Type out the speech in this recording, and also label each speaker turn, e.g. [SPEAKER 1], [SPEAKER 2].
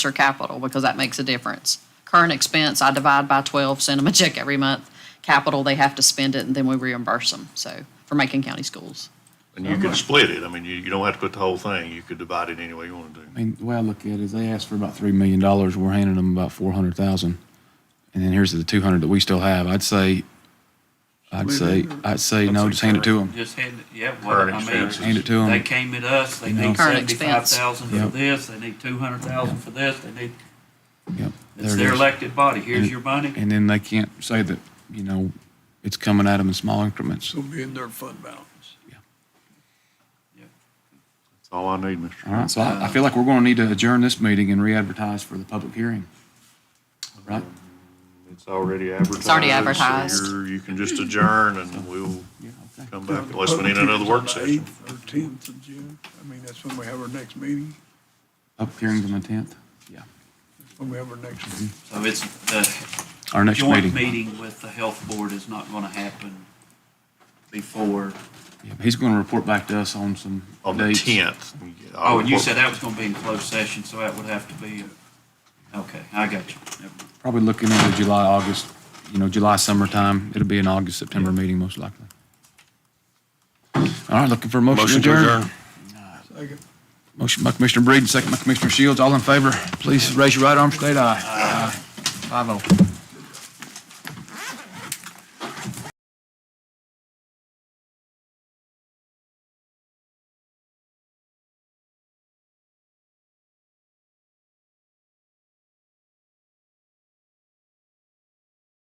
[SPEAKER 1] or capital, because that makes a difference. Current expense, I divide by twelve, send them a check every month. Capital, they have to spend it, and then we reimburse them, so, for Macon County Schools.
[SPEAKER 2] And you can split it. I mean, you, you don't have to put the whole thing. You could divide it any way you want to do.
[SPEAKER 3] I mean, the way I look at it is they asked for about three million dollars. We're handing them about four hundred thousand, and then here's the two hundred that we still have. I'd say, I'd say, I'd say no. Just hand it to them.
[SPEAKER 4] Just hand, it- yeah, well,
[SPEAKER 2] Current
[SPEAKER 4] I
[SPEAKER 2] expenses.
[SPEAKER 4] mean,
[SPEAKER 3] Hand it to
[SPEAKER 4] they
[SPEAKER 3] them.
[SPEAKER 4] came at us, they
[SPEAKER 3] You know.
[SPEAKER 4] need
[SPEAKER 1] Current
[SPEAKER 4] seventy-five
[SPEAKER 1] expense.
[SPEAKER 4] thousand for
[SPEAKER 3] Yep.
[SPEAKER 4] this, they need two hundred thousand for this, they need,
[SPEAKER 3] Yep.
[SPEAKER 4] it's
[SPEAKER 3] there it
[SPEAKER 4] their
[SPEAKER 3] is.
[SPEAKER 4] elected body, here's
[SPEAKER 3] And-
[SPEAKER 4] your money.
[SPEAKER 3] And then they can't say that you know it's coming at them in small increments.
[SPEAKER 5] It'll be in their fund balance.
[SPEAKER 2] That's all I need, Mr.
[SPEAKER 3] All right. So I, I feel like we're going to need to adjourn this meeting and re-advertise for the public hearing. Right.
[SPEAKER 2] It's already advertised.
[SPEAKER 1] already
[SPEAKER 2] so
[SPEAKER 1] advertised.
[SPEAKER 2] you're- You can just adjourn and we'll
[SPEAKER 3] Yeah. Okay.
[SPEAKER 2] come back unless we need another work session.
[SPEAKER 5] Or tenth of June. I mean, that's when we have our next meeting,
[SPEAKER 3] Public hearing's on the tenth. Yeah.
[SPEAKER 5] That's when we have our next.
[SPEAKER 4] So it's, the
[SPEAKER 3] Our next meeting.
[SPEAKER 4] joint meeting with the health board is not gonna happen before,
[SPEAKER 3] Yeah, he's going to report back to us on some
[SPEAKER 2] On the
[SPEAKER 3] dates.
[SPEAKER 2] tenth.
[SPEAKER 4] oh, and you said that was gonna be in closed session, so that would have to be, a- okay, I got you. Never mind.
[SPEAKER 3] Probably looking into July, August, you know, July, summertime. It'll be an August, September meeting most likely. All right, looking for a motion to
[SPEAKER 2] Motion to
[SPEAKER 3] adjourn.
[SPEAKER 2] adjourn.
[SPEAKER 5] Second.
[SPEAKER 3] Motion by Commissioner Breeden, second by Commissioner Shields. All in favor, please raise your right arm, state aye. Aye. Five oh.